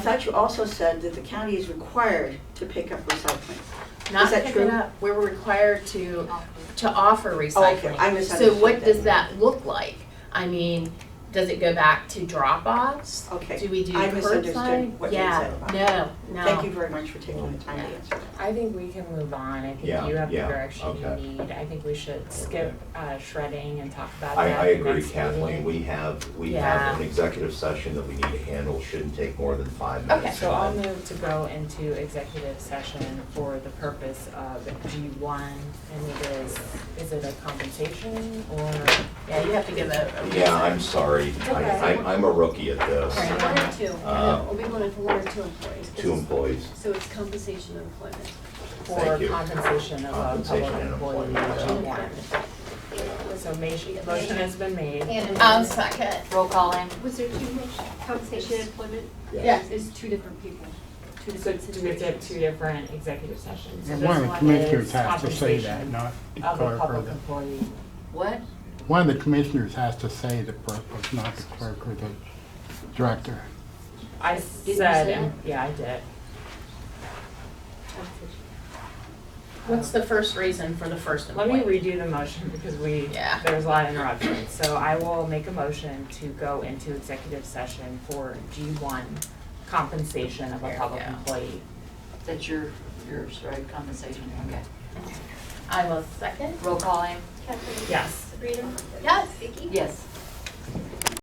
I thought you also said that the county is required to pick up recycling. Not Is that pick true? it up. We're required to, to offer Oh, recycling. okay, I So misunderstood. what does then. that look like? I mean, does it go back to drop-offs? Do Okay, we do curbside? I misunderstood what you said about Yeah, no, no. thank you very much for taking the time to answer that. I think we can move on. I think Yeah, you have the yeah, direction you okay. need. I think we should skip uh, shredding and talk about I, that. I agree next Kathleen, meeting. we have, we have Yeah. an executive session that we need to handle, shouldn't take more than five Okay, minutes. so I'll time. move to go into executive session for the purpose of G one, and it is, is it a compensation or? Yeah, you have to give a, a reason. Yeah, I'm sorry, okay. I, I'm, I'm a rookie at this, Right. One or two, Uh, or we wanted one or two employees. two employees, So it's compensation of employment. For Thank you. compensation of a Compensation public and employee. employment, G yeah. one. So ma- motion has been made. I'll Um, second. Roll call in. Was there too much compensation and employment? yes, It's two different people, two So different do we have situations. two different executive sessions? So And this one of the commissioners is has to say that, compensation not the Of a clerk or public the, employee. What? one of the commissioners has to say the purpose, not the clerk or the director. I you say said, yeah, I did. What's the first reason for the first Let me employee? redo the motion because we, Yeah. there was a lot of interruptions. So I will make a motion to go into executive session for G one compensation of a There we public go. employee. That's your, your sorry, compensation, okay. I will second. Roll call in? Kathleen? Yes. Sabrina? Yes. Vicky? Yes.